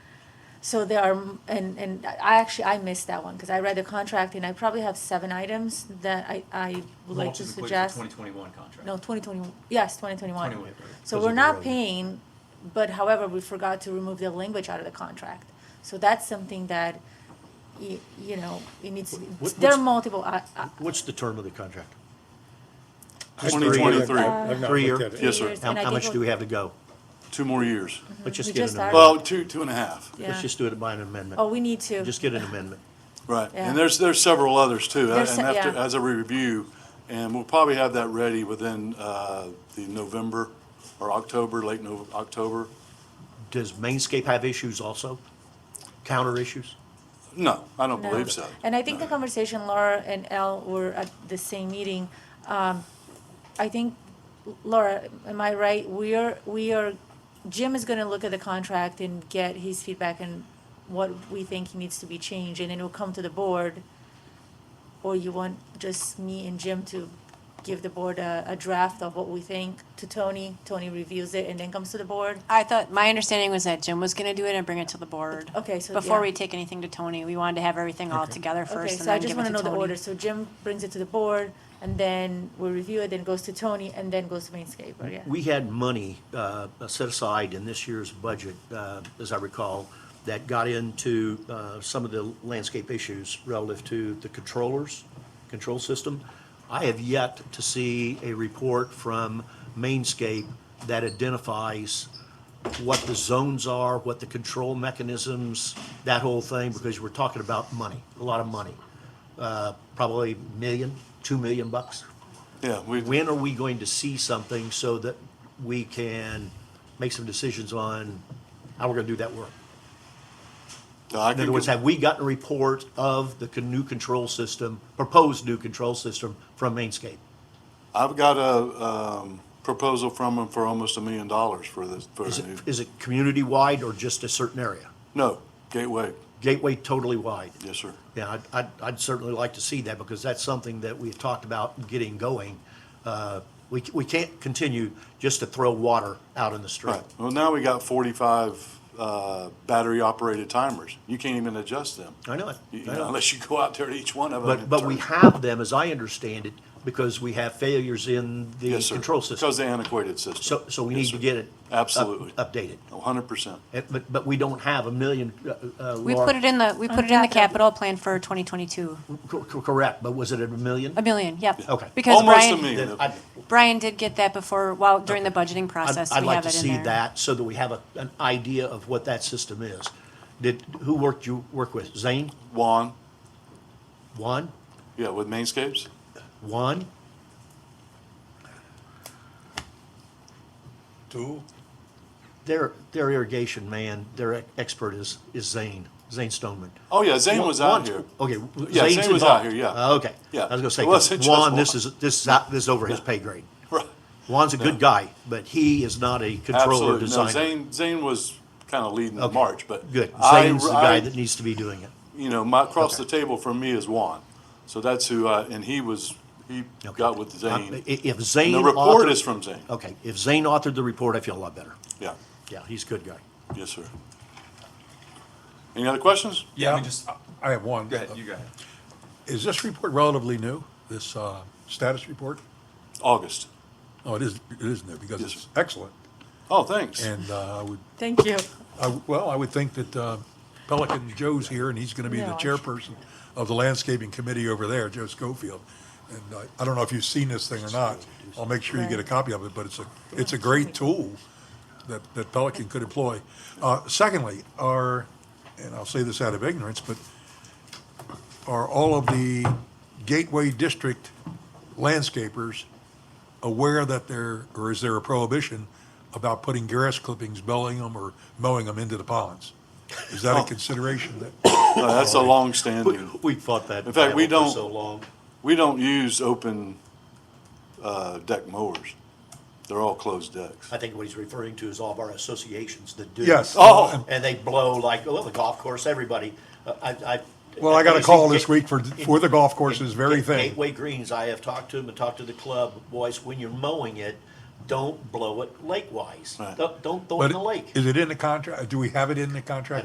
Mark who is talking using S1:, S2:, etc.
S1: So there are, and, and I actually, I missed that one, because I read the contract, and I probably have seven items that I, I would like to suggest.
S2: Twenty twenty-one contract.
S1: No, twenty twenty, yes, twenty twenty-one.
S2: 21, right.
S1: So
S3: Those
S1: we're
S3: are
S1: not
S3: irrelevant.
S1: paying, but however, we forgot to remove the language out of the contract. So that's something that, you, you know, it needs, to be-
S3: What-
S1: there are
S3: what's-
S1: multiple, uh, I, I,
S3: What's the term of the contract?
S4: Just
S3: Three year.
S4: 2023.
S3: Uh,
S1: I've
S4: not
S3: Three
S4: looked
S3: year?
S4: at it.
S1: Yes, sir.
S3: How,
S1: And I
S3: how
S1: did
S3: much
S1: look-
S3: do we have to go?
S4: Two more
S3: Let's
S4: years.
S1: Mm-hmm. We
S3: just get
S1: just
S3: an
S1: started.
S3: amendment.
S4: Well, two, two and a half,
S1: yeah.
S3: Let's just do it by an
S1: Oh,
S3: amendment.
S1: we need to.
S3: Just get an amendment.
S4: right.
S1: Yeah.
S4: And there's, there's several others too.
S1: There's
S4: And
S1: se-
S4: after,
S1: yeah.
S4: as a review, and we'll probably have that ready within uh, the November or October, late November, October.
S3: Does Mainscape have issues also? Counter issues?
S4: No, I don't
S1: No.
S4: believe so.
S1: And I think the conversation Laura and Al were at the same meeting, um, I think, Laura, am I right? We are, we are, Jim is gonna look at the contract and get his feedback and what we think he needs to be changed, and then it'll come to the board. Or you want just me and Jim to give the board a, a draft of what we think to Tony, Tony reviews it and then comes to the board?
S5: I thought, my understanding was that Jim was gonna do it and bring it to the board.
S1: Okay, so,
S5: Before
S1: yeah.
S5: we take anything to Tony, we wanted to have everything all together
S1: Okay,
S5: first and
S1: so I
S5: then
S1: just
S5: give it
S1: wanna
S5: to
S1: know the order,
S5: Tony.
S1: so Jim brings it to the board, and then we review it, then it goes to Tony, and then goes to Mainscape, yeah.
S3: We had money uh, set aside in this year's budget, uh, as I recall, that got into uh, some of the landscape issues relative to the controllers, control system. I have yet to see a report from Mainscape that identifies what the zones are, what the control mechanisms, that whole thing, because we're talking about money, a lot of money. Uh, Probably million, two million bucks.
S4: Yeah, we,
S3: When are we going to see something so that we can make some decisions on how we're gonna do that work?
S4: I
S3: In
S4: can
S3: other words,
S4: get-
S3: have we gotten a report of the con- new control system, proposed new control system from Mainscape?
S4: I've got a um, proposal from them for almost a million dollars for this, for
S3: Is
S4: a
S3: it,
S4: new,
S3: is it community-wide or just a certain area?
S4: no, Gateway,
S3: Gateway totally wide?
S4: yes, sir.
S3: Yeah, I'd- I'd, I'd certainly like to see that because that's something that we've talked about getting going. Uh, We, c- we can't continue just to throw water out in the street.
S4: Right, well, now we got forty-five uh, battery-operated timers. You can't even adjust them.
S3: I know it.
S4: You- you
S3: I
S4: know,
S3: know it.
S4: Unless you go out there to each one of them.
S3: But,
S4: and
S3: but we
S4: turn-
S3: have them, as I understand it, because we have failures in the
S4: Yes, sir.
S3: control system.
S4: Because the antiquated system.
S3: So, so we
S4: Yes,
S3: need to
S4: sir.
S3: get it. up-
S4: Absolutely.
S3: Updated.
S4: hundred percent.
S3: Eh, But, but we don't have a million, uh, uh.
S5: We
S3: lar-
S5: put it in the, we put it in the capital plan for twenty twenty-two,
S3: cor- cor- Correct, but was it a million?
S5: a million, yep.
S3: Okay.
S5: Because
S4: Almost a
S5: Brian,
S4: million.
S3: Then I'd-
S5: Brian did get that before, while, during the budgeting
S3: I'd,
S5: process,
S3: I'd
S5: we
S3: like
S5: have
S3: to
S5: it in
S3: see
S5: there.
S3: that so that we have a, an idea of what that system is. Did, who worked you, work with? Zane?
S4: Juan,
S3: Juan?
S4: yeah, with Mainscapes?
S3: Juan?
S6: Two,
S3: Their, their irrigation man, their expert is, is Zane, Zane Stoneman.
S4: Oh, yeah, Zane
S3: Juan-
S4: was out
S3: Juan's-
S4: here.
S3: Okay.
S4: Yeah,
S3: Zane's
S4: Zane was
S3: involved.
S4: out here, yeah.
S3: Uh, Okay.
S4: Yeah.
S3: I was
S4: It wasn't
S3: gonna say,
S4: just
S3: Juan, this
S4: Juan.
S3: is, this is, out- this is over his pay grade.
S4: Right.
S3: Juan's a good guy, but he is not a controller
S4: Absolutely. No,
S3: designer.
S4: Zane, Zane was kind of leading the
S3: Okay.
S4: march, but.
S3: Good.
S4: I-
S3: Zane's the
S4: I-
S3: guy that needs to be doing it.
S4: You know, my, across
S3: Okay.
S4: the table from me is Juan. So that's who I, and he was, he
S3: Okay. Uh,
S4: got with
S3: I-
S4: Zane.
S3: i- If
S4: And
S3: Zane.
S4: the report
S3: authored-
S4: is from Zane.
S3: Okay, if Zane authored the report, I feel a lot better.
S4: Yeah,
S3: Yeah, he's a good guy.
S4: yes, sir. Any other questions?
S2: Yeah,
S6: yeah,
S2: we
S6: I
S2: just- uh,
S6: I have one.
S2: Go ahead, you go ahead.
S6: Is this report relatively new, this uh, status report?
S4: August.
S6: Oh, it is, it is new, because
S4: Yes,
S6: it's
S4: sir.
S6: excellent,
S4: Oh, thanks.
S6: and uh, I would,
S1: Thank you.
S6: I w- well, I would think that uh, Pelican Joe's here, and he's gonna be
S1: No,
S6: the
S1: I-
S6: chairperson of the landscaping committee over there, Joe Schofield. And uh, I don't know if you've seen this thing or not, I'll make sure you get a copy of it, but it's a, it's a great tool that, that Pelican could employ. Uh, Secondly, are, and I'll say this out of ignorance, but are all of the Gateway District landscapers aware that there, or is there a prohibition about putting grass clippings, belling them, or mowing them into the ponds? Is that a consideration that,
S4: No, Oh, That's a
S3: We,
S4: long-standing.
S3: we fought that
S4: In fact, we
S3: battle
S4: don't-
S3: for so long.
S4: We don't use open uh, deck mowers. They're all closed decks.
S3: I think what he's referring to is all of our associations that do.
S6: yes?
S4: Oh.
S3: And they blow like, oh, the golf course, everybody. Uh, I, I.
S6: Well, I got a
S3: Is it
S6: call this
S3: Gate-
S6: week for, for the golf courses, very thing.
S3: Gateway Greens, I have talked to them and talked to the club boys, when you're mowing it, don't blow it lake-wise.
S4: Right.
S3: Don't, don't throw it in
S6: But
S3: the lake.
S6: is it in the contract, do we have it in the contract?